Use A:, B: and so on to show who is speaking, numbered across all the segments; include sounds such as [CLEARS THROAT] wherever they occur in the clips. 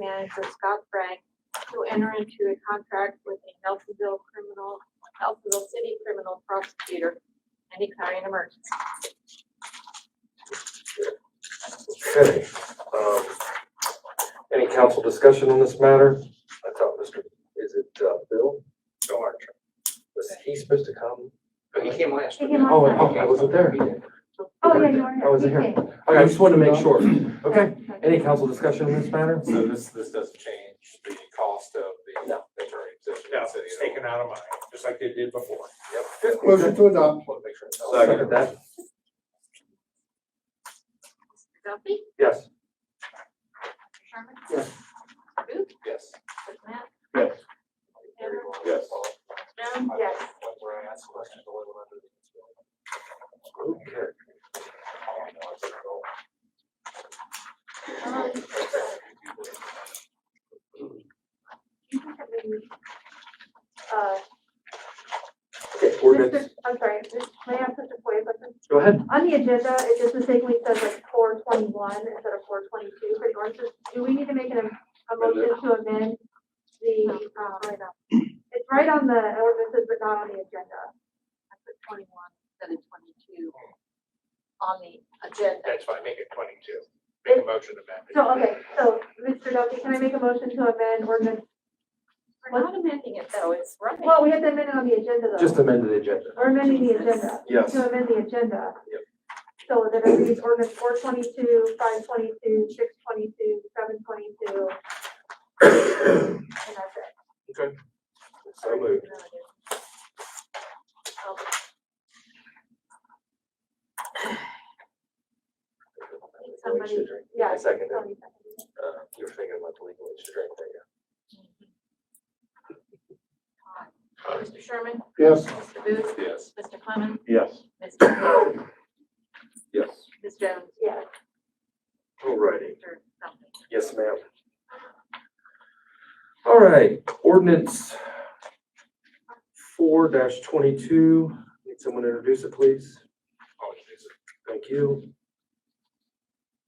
A: Manager Scott Frank to enter into a contract with a Nelsonville criminal, Nelsonville City criminal prosecutor and declaring an emergency.
B: Okay, um, any council discussion on this matter? I thought Mr., is it, uh, Bill? Bill Archer. Was he supposed to come?
C: Oh, He came last.
D: He came
C: wasn't he?
B: Oh, I wasn't there.
D: Oh, yeah, you are.
B: I wasn't here. Okay, I just wanted to make sure. Okay, any council discussion on this matter?
E: So this, this doesn't change the cost of the temporary position.
C: No, it's taken out of mine, just like they did before.
B: Yep.
F: Motion to adopt.
C: Just wanna make sure it's out.
B: I'll Second that,
A: Mr. Duffy?
B: yes.
A: Mr. Sherman?
B: Yes.
A: Mr. Booth?
C: Yes.
A: Mr. Matt?
F: Yes.
E: Yes.
A: Jones? Yes.
C: Where I asked questions, the little under the-
B: Okay.
A: Um, do you have any, Uh,
B: Okay,
D: Mr.
B: ordinance,
D: I'm sorry, just- may I put this way, but the-
B: go ahead.
D: on the agenda, it just mistakenly says like four twenty-one instead of four twenty-two for the ordinance. Do we need to make an, a motion to amend the, um, it's right on the ordinances, but not on the agenda.
A: I put twenty-one instead of twenty-two on the agenda.
C: That's fine, make it twenty-two. Make a motion to amend. it.
D: So, okay, so, Mr. Duffy, can I make a motion to amend ordinance?
A: We're not amending it though, it's running.
D: Well, we have to amend it on the agenda though.
B: Just amend the agenda.
D: We're amending the agenda.
B: Yes.
D: To amend the agenda.
B: Yep.
D: So that it reads ordinance four twenty-two, five twenty-two, six twenty-two, seven twenty-two. And that's it.
B: So moved.
D: Somebody- Yeah.
B: I second it.
D: somebody seconded it.
B: Uh, you're thinking about the legal age drink, there you
A: Mr. Sherman?
F: Yes.
A: Mr. Booth?
E: Yes.
A: Mr. Clement?
F: Yes.
A: Mr.
B: Yes.
A: Ms. Jones?
D: Yes.
B: Alrighty.
A: Mr. Something.
B: Yes, ma'am. All right, ordinance four twenty-two, need someone to introduce it, please?
C: I'll introduce it.
B: Thank you.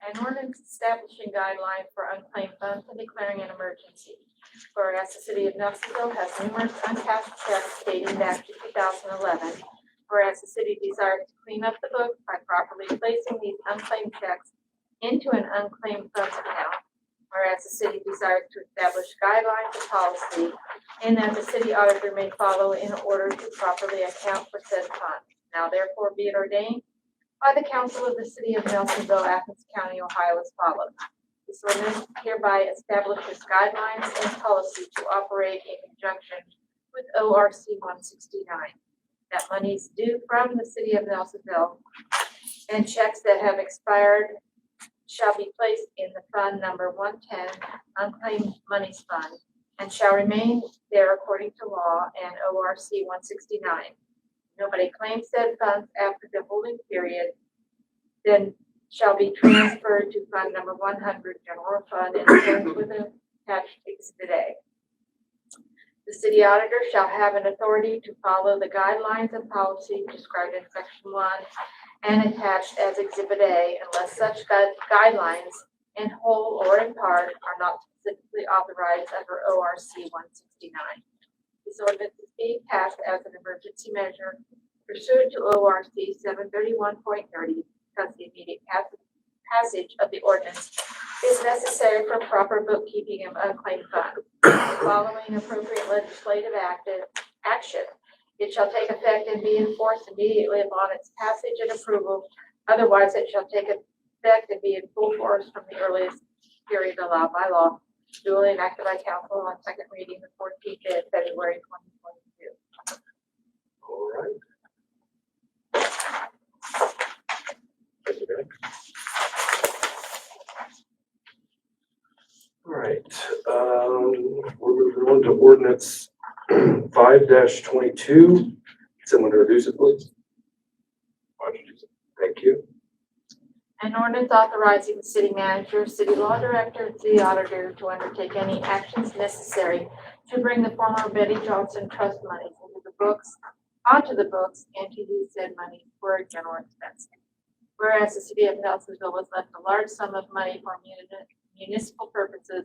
A: An ordinance establishing guidelines for unclaimed funds and declaring an emergency. Whereas the city of Nelsonville has numerous uncashed checks dating back to two thousand eleven. Whereas the city desires to clean up the books by properly placing these unclaimed checks into an unclaimed funds account. Whereas the city desires to establish guidelines and policy, and that the city auditor may follow in order to properly account for said funds. Now therefore be it ordained by the Council of the City of Nelsonville, Athens County, Ohio as follows. This ordinance hereby establishes guidelines and policy to operate in conjunction with O R C one sixty-nine. That monies due from the City of Nelsonville and checks that have expired shall be placed in the fund number one-ten unclaimed monies fund and shall remain there according to law and O R C one sixty-nine nobody claims said funds after the holding period, then shall be transferred to fund number one hundred, general fund, in accordance with the attached exhibit A. The city auditor shall have an authority to follow the guidelines and policy described in section one and attached as exhibit A unless such gui- guidelines in whole or in part are not specifically authorized under O R C one sixty-nine. This ordinance is being passed as an emergency measure pursuant to O R C seven thirty-one point thirty, because the immediate pass- passage of the ordinance is necessary for proper bookkeeping of unclaimed funds. Following appropriate legislative active action, it shall take effect and be enforced immediately upon its passage and approval. Otherwise, it shall take effect and be in full force from the earliest period allowed by law duly enacted by council on second reading the fourteenth day of February twenty twenty-two.
B: All right. Thank you, Derek. All right, um, we're moving on to ordinance [CLEARS THROAT] five twenty-two. Someone to introduce it, please?
C: I'll introduce it.
B: Thank you.
A: An ordinance authorizing the city manager, city law director, and city auditor to undertake any actions necessary to bring the former Betty Johnson trust money into the books, onto the books, and to use said money for general expenses. Whereas the city of Nelsonville was left a large sum of money for muni- municipal purposes